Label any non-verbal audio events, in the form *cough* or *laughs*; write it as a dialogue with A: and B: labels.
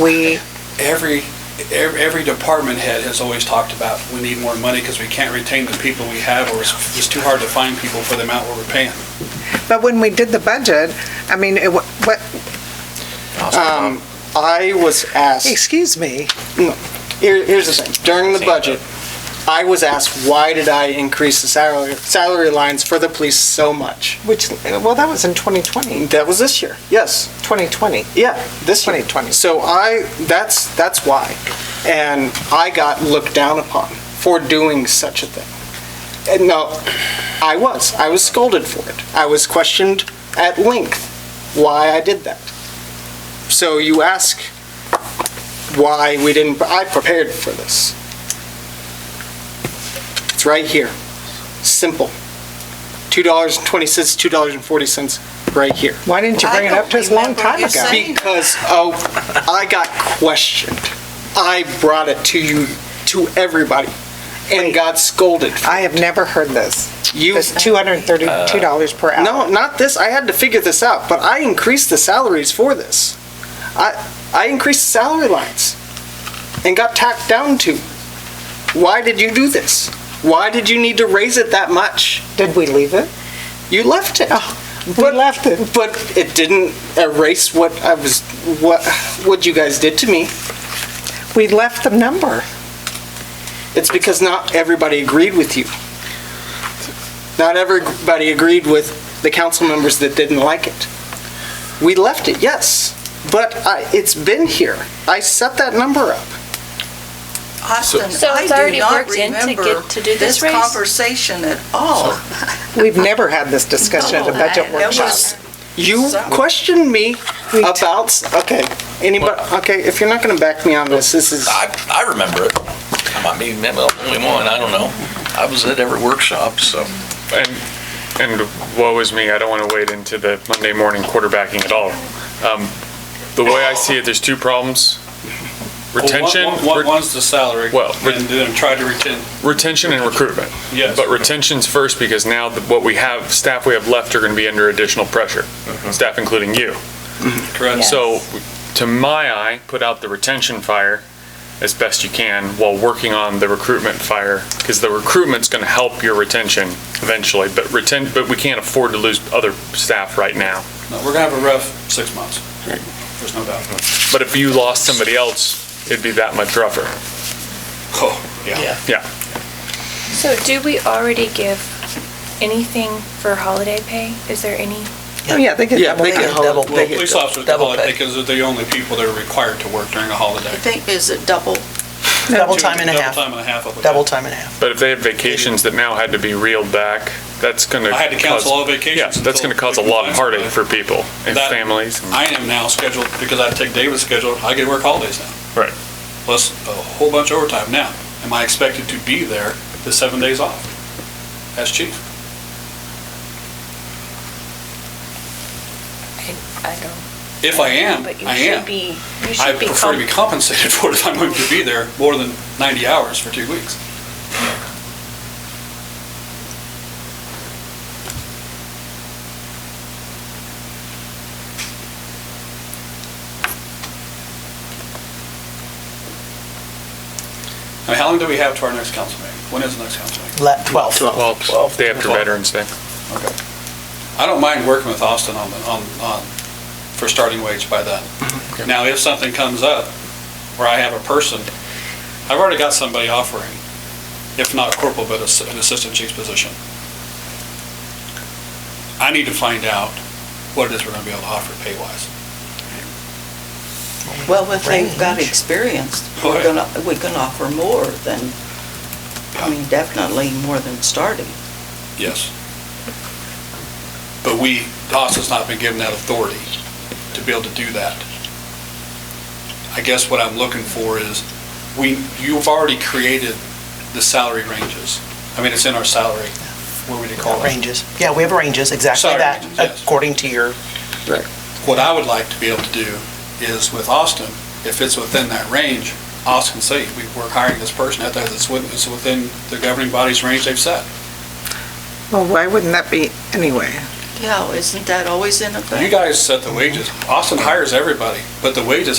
A: we,
B: Every, ev- every department head has always talked about, we need more money because we can't retain the people we have, or it's it's too hard to find people for the amount we're paying.
A: but when we did the budget, I mean, it, wa- what,
C: Um, I was asked,
A: excuse me,
C: here, here's the thing, during the budget, I was asked, why did I increase the salary, salary lines for the police so much?
A: which, well, that was in 2020,
C: That was this year, yes,
A: 2020.
C: yeah, this year.
A: 2020.
C: So I, that's, that's why. And I got looked down upon for doing such a thing. And no, I was, I was scolded for it. I was questioned at length why I did that. So you ask why we didn't, I prepared for this. It's right here, simple. $2.20, $2.40, right here.
A: Why didn't you bring it up to us a long time ago?
C: Because, oh, I got questioned. I brought it to you, to everybody, and got scolded.
A: I have never heard this.
C: You, Uh,
A: This $232 per hour.
C: no, not this, I had to figure this out, but I increased the salaries for this. I, I increased the salary lines and got tacked down to. Why did you do this? Why did you need to raise it that much?
A: Did we leave it?
C: You left it.
A: Oh, We
C: But-
A: left it.
C: But it didn't erase what I was, what, what you guys did to me.
A: We left the number.
C: It's because not everybody agreed with you. Not everybody agreed with the council members that didn't like it. We left it, yes, but I, it's been here. I set that number up.
D: Austin,
E: So it's
D: I do
E: already
D: not
E: worked in to
D: remember
E: get- to do this
D: this
E: raise?
D: conversation at all.
A: We've never had this discussion at a budget
E: No, I-
D: It
A: workshop.
D: was,
C: You questioned me
A: We-
C: about, okay, anybody, okay, if you're not gonna back me on this, this is,
F: I, I remember it. I might be maybe the only one, I don't know. I was at every workshop, so.
G: And woe is me, I don't want to wade into the Monday morning quarterbacking at all. Um, The way I see it, there's two problems. Retention,
B: Well, one- one-
G: re-
B: One's the salary,
G: Well, re-
B: and then try to retain,
G: retention and recruitment.
B: yes.
G: But retention's first because now the- what we have, staff we have left are going to be under additional pressure,
B: Uh-huh.
G: staff including you.
B: Correct.
G: So, to my eye, put out the retention fire as best you can while working on the recruitment fire, because the recruitment's gonna help your retention eventually, but retain, but we can't afford to lose other staff right now.
B: No, We're gonna have a rough six months, there's no doubt.
G: But if you lost somebody else, it'd be that much rougher.
B: Oh, yeah.
E: So do we already give anything for holiday pay? Is there any?
A: Oh, yeah, they get
C: Yeah,
A: double
C: they
A: that.
C: get
B: Well,
C: double.
F: get
B: police officers
F: double
B: call it
F: pay.
B: because they're the only people that are required to work during a
D: I
B: holiday.
D: think, is it double?
H: Double time and a
B: Double
H: half.
B: time and a half, I believe.
H: Double time and a half.
G: But if they have vacations that now had to be reeled back, that's gonna.
B: I had to cancel
G: cause-
B: all vacations.
G: Yeah, that's
B: until
G: gonna cause a
B: we can
G: lot of
B: find
G: heartache
B: somebody.
G: for people and
B: That-
G: families. and-
B: I am now scheduled, because I take David's schedule, I get to work holidays now.
G: Right.
B: Plus a whole bunch of overtime. Now, am I expected to be there the seven days off as chief?
E: I don't.
B: If I am,
E: But you
B: I
E: should
B: am.
E: be, you
B: I
E: should be.
B: prefer to be
E: comp-
B: compensated *laughs* for it if I'm going to be there more than 90 hours for two weeks. I mean, how long do we have to our next council meeting? When is the next council meeling?
H: Le- 12.
G: Well, day after
B: Well-
G: Veterans Day.
B: I don't mind working with Austin on, the- on, on, for starting wage by then. Now, if something comes up where I have a person, I've already got somebody offering, if not corporal, but ass- an assistant chief's position. I need to find out what it is we're gonna be able to offer pay-wise.
D: Well, if they've got experience, we're
B: Right.
D: gonna, we can offer more than, I mean, definitely more than starting.
B: Yes. But we, Austin's not been given that authority to be able to do that. I guess what I'm looking for is, we, you've already created the salary ranges. I mean, it's in our salary, what would you call it?
H: Ranges. Yeah, we have ranges, exactly
B: Salary
H: that,
B: ranges, yes.
H: according to your,
B: What I would like to be able to do is with Austin, if it's within that range, Austin can say, we- we're hiring this person at that, it's within, it's within the governing body's range they've set.
A: Well, why wouldn't that be anyway?
D: Yeah, isn't that always in effect?
B: You guys set the wages. Austin hires everybody, but the wages